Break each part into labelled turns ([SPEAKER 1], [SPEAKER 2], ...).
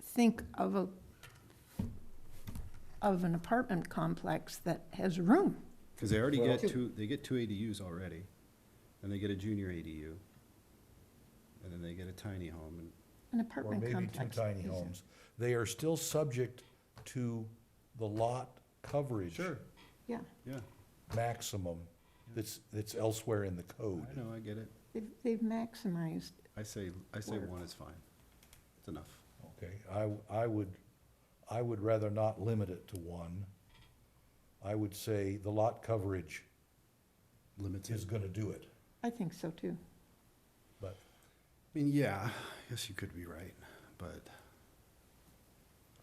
[SPEAKER 1] think of a, of an apartment complex that has room.
[SPEAKER 2] Because they already
[SPEAKER 3] Well-
[SPEAKER 2] get two, they get two ADUs already, and they get a junior ADU, and then they get a tiny home, and
[SPEAKER 1] An
[SPEAKER 3] or
[SPEAKER 1] apartment
[SPEAKER 3] maybe
[SPEAKER 1] complex.
[SPEAKER 3] two tiny
[SPEAKER 1] is-
[SPEAKER 3] homes, they are still subject to the lot coverage
[SPEAKER 2] sure,
[SPEAKER 1] Yeah,
[SPEAKER 2] yeah,
[SPEAKER 3] maximum that's, that's elsewhere in the code.
[SPEAKER 2] I know, I get it.
[SPEAKER 1] they've, they've maximized.
[SPEAKER 2] I say, I say
[SPEAKER 1] Word.
[SPEAKER 2] one is fine, it's enough.
[SPEAKER 3] Okay, I, I would, I would rather not limit it to one. I would say the lot coverage is
[SPEAKER 2] Limited.
[SPEAKER 3] gonna do it,
[SPEAKER 1] I think so too.
[SPEAKER 3] but
[SPEAKER 2] I mean, yeah, I guess you could be right, but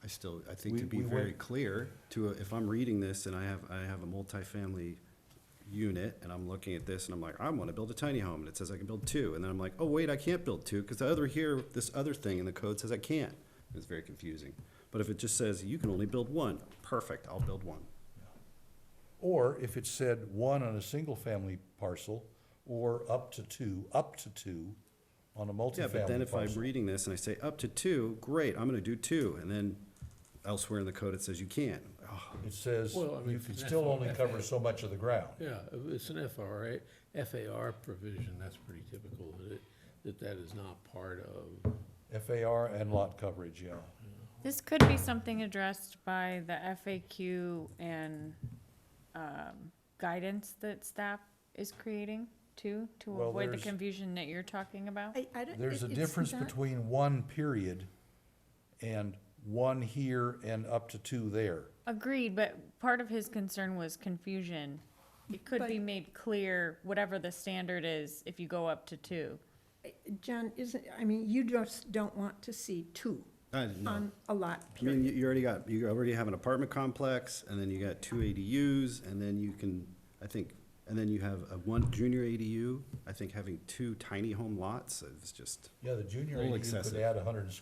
[SPEAKER 2] I still, I think to
[SPEAKER 3] We-
[SPEAKER 2] be
[SPEAKER 3] we
[SPEAKER 2] very
[SPEAKER 3] went-
[SPEAKER 2] clear, to, a- if I'm reading this and I have, I have a multifamily unit, and I'm looking at this, and I'm like, I wanna build a tiny home, and it says I can build two, and then I'm like, oh, wait, I can't build two, because the other here, this other thing in the code says I can't. It's very confusing. But if it just says, you can only build one, perfect, I'll build one.
[SPEAKER 3] Or if it said one on a single-family parcel, or up to two, up to two on a
[SPEAKER 2] Yeah, but then
[SPEAKER 3] multifamily
[SPEAKER 2] if I'm
[SPEAKER 3] parcel.
[SPEAKER 2] reading this and I say up to two, great, I'm gonna do two, and then elsewhere in the code it says you can't. Oh,
[SPEAKER 3] It says
[SPEAKER 4] Well, I mean,
[SPEAKER 3] you can
[SPEAKER 4] that's
[SPEAKER 3] still
[SPEAKER 4] all
[SPEAKER 3] only
[SPEAKER 4] that
[SPEAKER 3] cover
[SPEAKER 4] is.
[SPEAKER 3] so much of the ground.
[SPEAKER 4] Yeah, it's an FRA, FAR provision, that's pretty typical, that, it- that that is not part of,
[SPEAKER 3] FAR and lot coverage, yeah.
[SPEAKER 5] This could be something addressed by the FAQ and um, guidance that staff is creating too, to
[SPEAKER 3] Well,
[SPEAKER 5] avoid the
[SPEAKER 3] there's-
[SPEAKER 5] confusion that you're talking about.
[SPEAKER 1] I, I don't.
[SPEAKER 3] There's a
[SPEAKER 1] it- it's
[SPEAKER 3] difference
[SPEAKER 1] not-
[SPEAKER 3] between one period and one here and up to two there.
[SPEAKER 5] Agreed, but part of his concern was confusion. It could be
[SPEAKER 1] But-
[SPEAKER 5] made clear, whatever the standard is, if you go up to two.
[SPEAKER 1] Uh, John, isn't, I mean, you just don't want to see two
[SPEAKER 2] I don't know.
[SPEAKER 1] on a lot,
[SPEAKER 2] I mean, you- you already got, you already have an apartment complex, and then you got two ADUs, and then you can, I think, and then you have a one junior ADU. I think having two tiny home lots is just,
[SPEAKER 3] Yeah, the junior
[SPEAKER 2] Little
[SPEAKER 3] ADU could
[SPEAKER 2] excessive.
[SPEAKER 3] add hundred and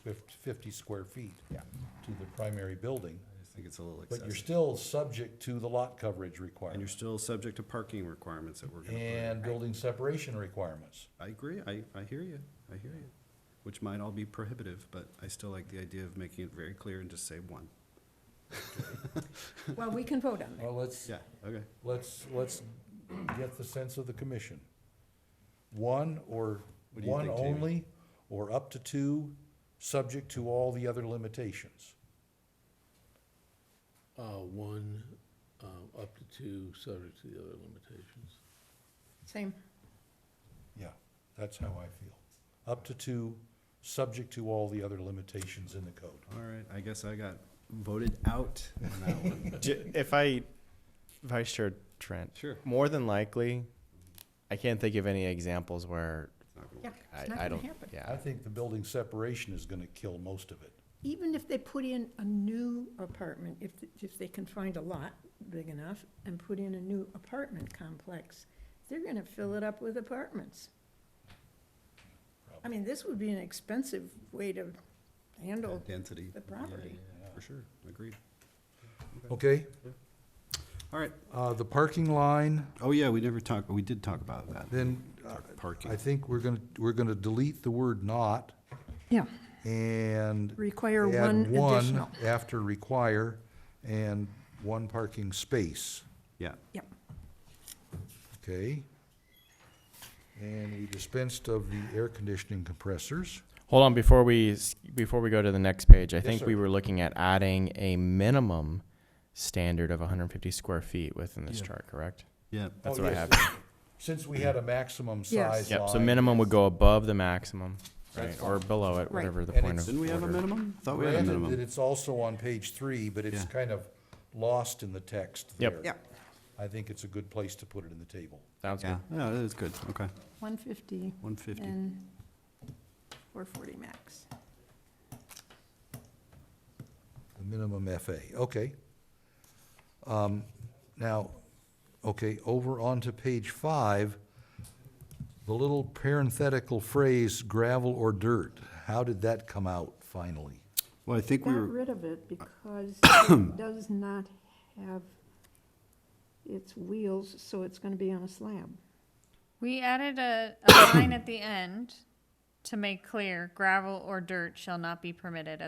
[SPEAKER 3] fifty square feet
[SPEAKER 2] Yeah.
[SPEAKER 3] to the primary building,
[SPEAKER 2] I just think it's a little
[SPEAKER 3] but you're
[SPEAKER 2] excessive.
[SPEAKER 3] still subject to the lot coverage
[SPEAKER 2] And you're
[SPEAKER 3] requirement
[SPEAKER 2] still subject to parking requirements that we're gonna put. in.
[SPEAKER 3] and building separation requirements.
[SPEAKER 2] I agree, I, I hear you, I hear you, which might all be prohibitive, but I still like the idea of making it very clear and just say one.
[SPEAKER 1] well, we can vote on that.
[SPEAKER 3] Well, let's,
[SPEAKER 2] Yeah, okay.
[SPEAKER 3] let's, let's get the sense of the commission. One or,
[SPEAKER 2] What do you
[SPEAKER 3] one
[SPEAKER 2] think, Jamie?
[SPEAKER 3] only, or up to two, subject to all the other limitations.
[SPEAKER 4] uh, one, uh, up to two, subject to the other limitations.
[SPEAKER 1] Same,
[SPEAKER 3] Yeah, that's how I feel. Up to two, subject to all the other limitations in the code.
[SPEAKER 2] All right, I guess I got voted out on that one.
[SPEAKER 6] J- if I, Vice Chair Trent,
[SPEAKER 2] Sure.
[SPEAKER 6] more than likely, I can't think of any examples where
[SPEAKER 2] It's not gonna
[SPEAKER 1] yeah,
[SPEAKER 2] work.
[SPEAKER 1] it's
[SPEAKER 6] I,
[SPEAKER 1] not gonna
[SPEAKER 6] I don't.
[SPEAKER 1] happen.
[SPEAKER 6] Yeah,
[SPEAKER 3] I think the building separation is gonna kill most of it.
[SPEAKER 1] Even if they put in a new apartment, if, if they can find a lot big enough and put in a new apartment complex, they're gonna fill it up with apartments. I mean, this would be an expensive way to handle,
[SPEAKER 2] Density.
[SPEAKER 1] the property.
[SPEAKER 2] Yeah, yeah, For sure, agreed.
[SPEAKER 3] Okay,
[SPEAKER 2] All right.
[SPEAKER 3] uh, the parking line,
[SPEAKER 2] Oh, yeah, we never talked, we did talk about that.
[SPEAKER 3] then, uh,
[SPEAKER 2] Talk
[SPEAKER 3] I
[SPEAKER 2] Parking.
[SPEAKER 3] think we're gonna, we're gonna delete the word not
[SPEAKER 1] yeah,
[SPEAKER 3] and
[SPEAKER 1] require
[SPEAKER 3] add
[SPEAKER 1] one
[SPEAKER 3] one
[SPEAKER 1] additional.
[SPEAKER 3] after require and one parking space,
[SPEAKER 2] Yeah,
[SPEAKER 1] Yep,
[SPEAKER 3] okay? And we dispensed of the air conditioning compressors.
[SPEAKER 6] Hold on before we s- before we go to the next page. I
[SPEAKER 3] Yes,
[SPEAKER 6] think
[SPEAKER 3] sir.
[SPEAKER 6] we were looking at adding a minimum standard of 150 square feet within this
[SPEAKER 2] Yeah.
[SPEAKER 6] chart. Correct.
[SPEAKER 2] yeah.
[SPEAKER 6] That's
[SPEAKER 3] Oh,
[SPEAKER 6] what
[SPEAKER 3] yes.
[SPEAKER 6] I have.
[SPEAKER 3] Since we had a maximum
[SPEAKER 1] Yes.
[SPEAKER 3] size line.
[SPEAKER 6] Yep. So minimum would go above the maximum, right,
[SPEAKER 3] That's
[SPEAKER 6] or below it,
[SPEAKER 1] Right.
[SPEAKER 6] whatever the
[SPEAKER 3] And
[SPEAKER 6] point
[SPEAKER 3] it's-
[SPEAKER 6] of.
[SPEAKER 2] Didn't we have a
[SPEAKER 6] order.
[SPEAKER 2] minimum? Thought we had a
[SPEAKER 3] Granted that
[SPEAKER 2] minimum.
[SPEAKER 3] it's also on page three, but it's
[SPEAKER 2] Yeah.
[SPEAKER 3] kind of lost in the text
[SPEAKER 6] Yep.
[SPEAKER 3] there.
[SPEAKER 1] yep,
[SPEAKER 3] I think it's a good place to put it in the table.
[SPEAKER 6] Sounds
[SPEAKER 2] Yeah,
[SPEAKER 6] good.
[SPEAKER 2] yeah, that is good, okay,
[SPEAKER 1] one fifty
[SPEAKER 2] one fifty.
[SPEAKER 1] and four forty max.
[SPEAKER 3] The minimum FA, okay. Um, Now, okay, over onto page five, the little parenthetical phrase gravel or dirt, how did that come out finally?
[SPEAKER 2] Well, I think we
[SPEAKER 1] Got
[SPEAKER 2] were,
[SPEAKER 1] rid of it because it does not have its wheels, so it's gonna be on a slab.
[SPEAKER 5] We added a, a line at the end to make clear gravel or dirt shall not be permitted as